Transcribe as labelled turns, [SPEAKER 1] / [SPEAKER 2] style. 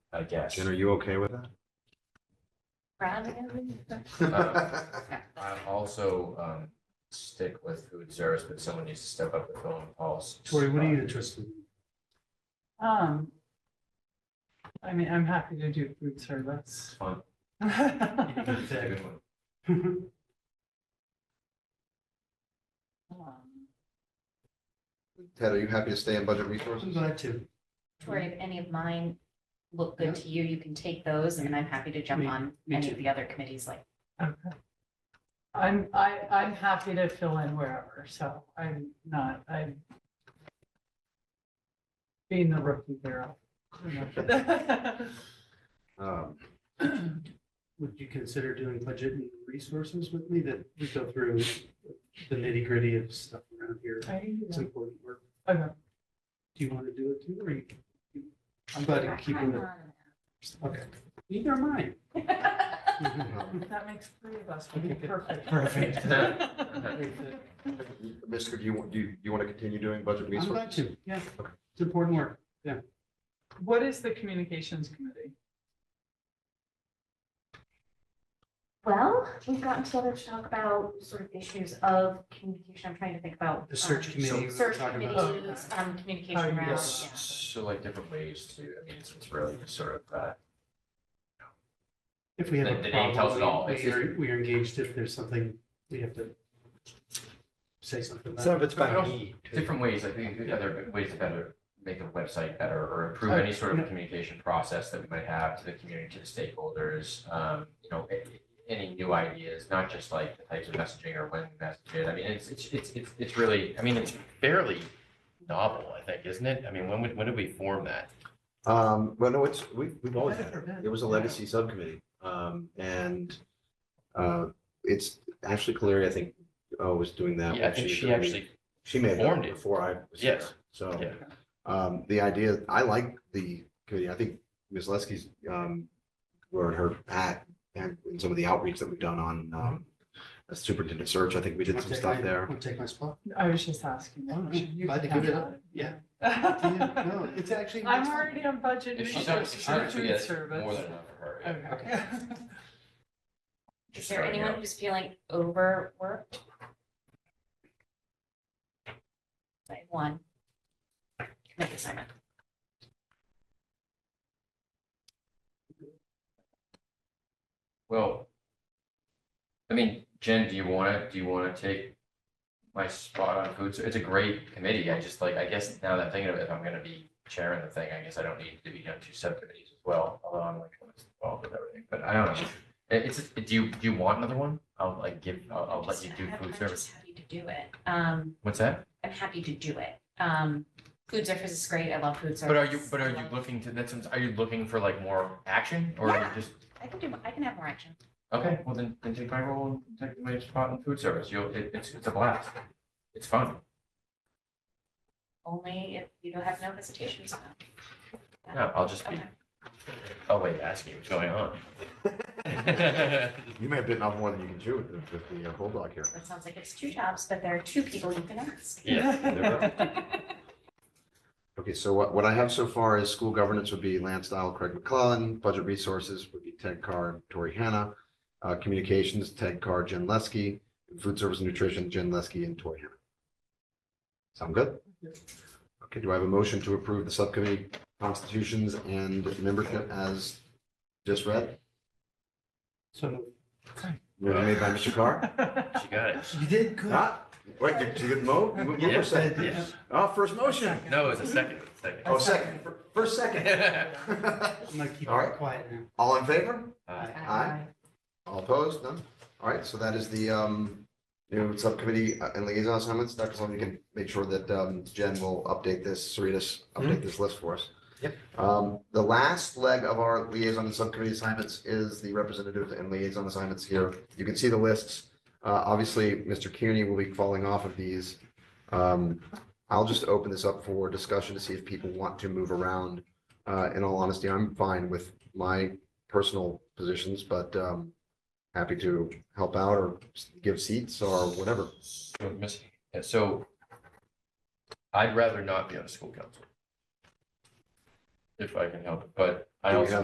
[SPEAKER 1] I guess.
[SPEAKER 2] Jen, are you okay with that?
[SPEAKER 3] Uh,
[SPEAKER 1] I'm also, um, stick with food service, but someone needs to step up with their own policies.
[SPEAKER 4] Tori, what are you interested in?
[SPEAKER 5] Um. I mean, I'm happy to do food service.
[SPEAKER 1] It's fun.
[SPEAKER 5] Um,
[SPEAKER 1] It's a good one.
[SPEAKER 2] Ted, are you happy to stay in budget
[SPEAKER 4] I'm
[SPEAKER 2] resources?
[SPEAKER 4] glad to.
[SPEAKER 6] Tori, if any of mine look good to you, you can take those and then I'm happy to jump
[SPEAKER 4] Me-
[SPEAKER 6] on
[SPEAKER 4] me
[SPEAKER 6] any
[SPEAKER 4] too.
[SPEAKER 6] of the other committees like.
[SPEAKER 5] I'm, I, I'm happy to fill in wherever, so I'm not, I'm. Being the rookie hero. you know.
[SPEAKER 2] Um,
[SPEAKER 4] Would you consider doing budget and resources with me that we go through the nitty gritty of stuff around here?
[SPEAKER 5] I can do
[SPEAKER 4] It's
[SPEAKER 5] that.
[SPEAKER 4] important work.
[SPEAKER 5] Okay.
[SPEAKER 4] Do you want to do it too, or you? I'm glad you're keeping it. Okay. Neither am I.
[SPEAKER 5] That makes three of us.
[SPEAKER 4] Okay, good.
[SPEAKER 5] Perfect.
[SPEAKER 4] Perfect.
[SPEAKER 2] Mr., do you, want- do you, you want to continue doing budget
[SPEAKER 4] I'm
[SPEAKER 2] resources?
[SPEAKER 4] glad to. Yeah,
[SPEAKER 2] Okay.
[SPEAKER 4] it's important work. Yeah.
[SPEAKER 5] What is the communications committee?
[SPEAKER 6] Well, we've gotten together to talk about sort of issues of communication. I'm trying to think about.
[SPEAKER 4] The search
[SPEAKER 6] um,
[SPEAKER 4] committee we were
[SPEAKER 6] Search
[SPEAKER 4] talking
[SPEAKER 6] committees,
[SPEAKER 4] about. Oh,
[SPEAKER 6] um,
[SPEAKER 5] How
[SPEAKER 6] communication
[SPEAKER 5] you
[SPEAKER 6] around,
[SPEAKER 4] guys-
[SPEAKER 6] yeah.
[SPEAKER 1] So like different ways to, I mean, it's it's really just sort of, uh,
[SPEAKER 4] If we have
[SPEAKER 1] The- the
[SPEAKER 4] a
[SPEAKER 1] name tells it all.
[SPEAKER 4] problem, we-
[SPEAKER 1] It's
[SPEAKER 4] we are, we are engaged. If there's something, we have to say something. about
[SPEAKER 3] Some of
[SPEAKER 4] it.
[SPEAKER 3] it's by me. too.
[SPEAKER 1] different ways, like think other ways to better make the website better or improve any sort of communication process that we might have to the community, to the stakeholders. Um, you know, a- any new ideas, not just like the types of messaging or when we message it. I mean, it's, it's, it's, it's, it's really, I mean, it's fairly novel, I think, isn't it? I mean, when, would- when did we form that?
[SPEAKER 3] Um, well, no, it's, we, we've always
[SPEAKER 5] I've
[SPEAKER 3] had
[SPEAKER 5] never
[SPEAKER 3] it.
[SPEAKER 5] been.
[SPEAKER 3] It was a legacy subcommittee. Um, and, uh, it's Ashley Caleri, I think, uh, was doing that.
[SPEAKER 1] Yeah, I
[SPEAKER 3] when
[SPEAKER 1] think
[SPEAKER 3] was
[SPEAKER 1] she
[SPEAKER 3] doing the-
[SPEAKER 1] actually,
[SPEAKER 3] She made
[SPEAKER 1] formed
[SPEAKER 3] it
[SPEAKER 1] it.
[SPEAKER 3] before I was there.
[SPEAKER 1] Yes.
[SPEAKER 3] So,
[SPEAKER 1] Oh, yeah,
[SPEAKER 3] um, the idea, I like the committee. I think Ms. Leskey's, um, wearing her hat and in some of the outreach that we've done on, um, a superintendent search. I think we did
[SPEAKER 4] I'll
[SPEAKER 3] some
[SPEAKER 4] take
[SPEAKER 3] stuff
[SPEAKER 4] my-
[SPEAKER 3] there.
[SPEAKER 4] I'll take my spot.
[SPEAKER 5] I was just asking.
[SPEAKER 4] Oh, no.
[SPEAKER 5] You
[SPEAKER 4] Glad to
[SPEAKER 5] can
[SPEAKER 4] give it
[SPEAKER 5] have
[SPEAKER 4] up. Yeah. Yeah,
[SPEAKER 5] that.
[SPEAKER 4] No, it's actually.
[SPEAKER 5] I'm already on budget.
[SPEAKER 1] if she's, up-
[SPEAKER 5] research
[SPEAKER 1] if she's,
[SPEAKER 5] and
[SPEAKER 1] up to
[SPEAKER 5] food
[SPEAKER 1] it, it's
[SPEAKER 5] service.
[SPEAKER 1] more than enough for her. yeah.
[SPEAKER 5] Okay.
[SPEAKER 6] Is
[SPEAKER 1] Just
[SPEAKER 6] there
[SPEAKER 1] starting
[SPEAKER 6] anyone
[SPEAKER 1] out.
[SPEAKER 6] who's feeling overworked? Like one. Make assignment.
[SPEAKER 1] Well, I mean, Jen, do you wanna, do you wanna take my spot on food? ser- It's a great committee. I just like, I guess now that I'm thinking of it, if I'm gonna be chairing the thing, I guess I don't need to be on two subcommittees as well, although I'm like always involved with everything, but I don't know. It- It's, do you, do you want another one? I'll like give, I'll, I'll let you do
[SPEAKER 6] I'm
[SPEAKER 1] food
[SPEAKER 6] just
[SPEAKER 1] service.
[SPEAKER 6] Happy to do it. Um,
[SPEAKER 1] What's that?
[SPEAKER 6] I'm happy to do it. Um, food service is great. I love food service.
[SPEAKER 1] But are you, but are you
[SPEAKER 6] Love-
[SPEAKER 1] looking to, that's, are you looking for like more action or are you
[SPEAKER 6] Yeah.
[SPEAKER 1] just?
[SPEAKER 6] I can do, I can have more action.
[SPEAKER 1] Okay, well then, then take my role and take my spot in food service. You'll, it, it's, it's a blast. It's fun.
[SPEAKER 6] Only if you don't have no hesitations.
[SPEAKER 1] Yeah, I'll just be,
[SPEAKER 6] Okay.
[SPEAKER 1] oh wait, asking what's going on.
[SPEAKER 3] You may have bitten off more than you can chew with the, with the uh, bulldog here.
[SPEAKER 6] That sounds like it's two jobs, but there are two people you can ask.
[SPEAKER 3] Okay, so what, what I have so far is school governance would be Lance Dial, Craig McClellan, budget resources would be Ted Carr, Tori Hanna, uh, communications, Ted Carr, Jen Leskey, food service and nutrition, Jen Leskey and Tori Hanna. Sound good? Okay, do I have a motion to approve the subcommittee constitutions and membership as just read?
[SPEAKER 4] So
[SPEAKER 3] Motion Made by Mr. Carr?
[SPEAKER 1] She got it.
[SPEAKER 4] you did good.
[SPEAKER 3] Huh? Wait, you you didn't vote? You moved for second.
[SPEAKER 1] Yeah.
[SPEAKER 3] Oh, first motion.
[SPEAKER 1] No, it's a second, second.
[SPEAKER 3] Oh, second, first second.
[SPEAKER 4] I'm gonna keep
[SPEAKER 3] All right.
[SPEAKER 4] it quiet now.
[SPEAKER 3] All in favor?
[SPEAKER 1] Uh,
[SPEAKER 3] Aye. All opposed? None? All right, so that is the um new subcommittee uh, and liaison assignments. Dr. Sloan, you can make sure that um Jen will update this, Saritas, update this list for us.
[SPEAKER 4] Yep.
[SPEAKER 3] Um, the last leg of our liaison and subcommittee assignments is the representative and liaison assignments here. You can see the lists. Uh, obviously, Mr. Kearney will be falling off of these. Um, I'll just open this up for discussion to see if people want to move around. Uh, in all honesty, I'm fine with my personal positions, but um, happy to help out or give seats or whatever.
[SPEAKER 1] So, Miss, yeah, so I'd rather not be on a school council. If I can help, it, but I
[SPEAKER 3] Do we
[SPEAKER 1] also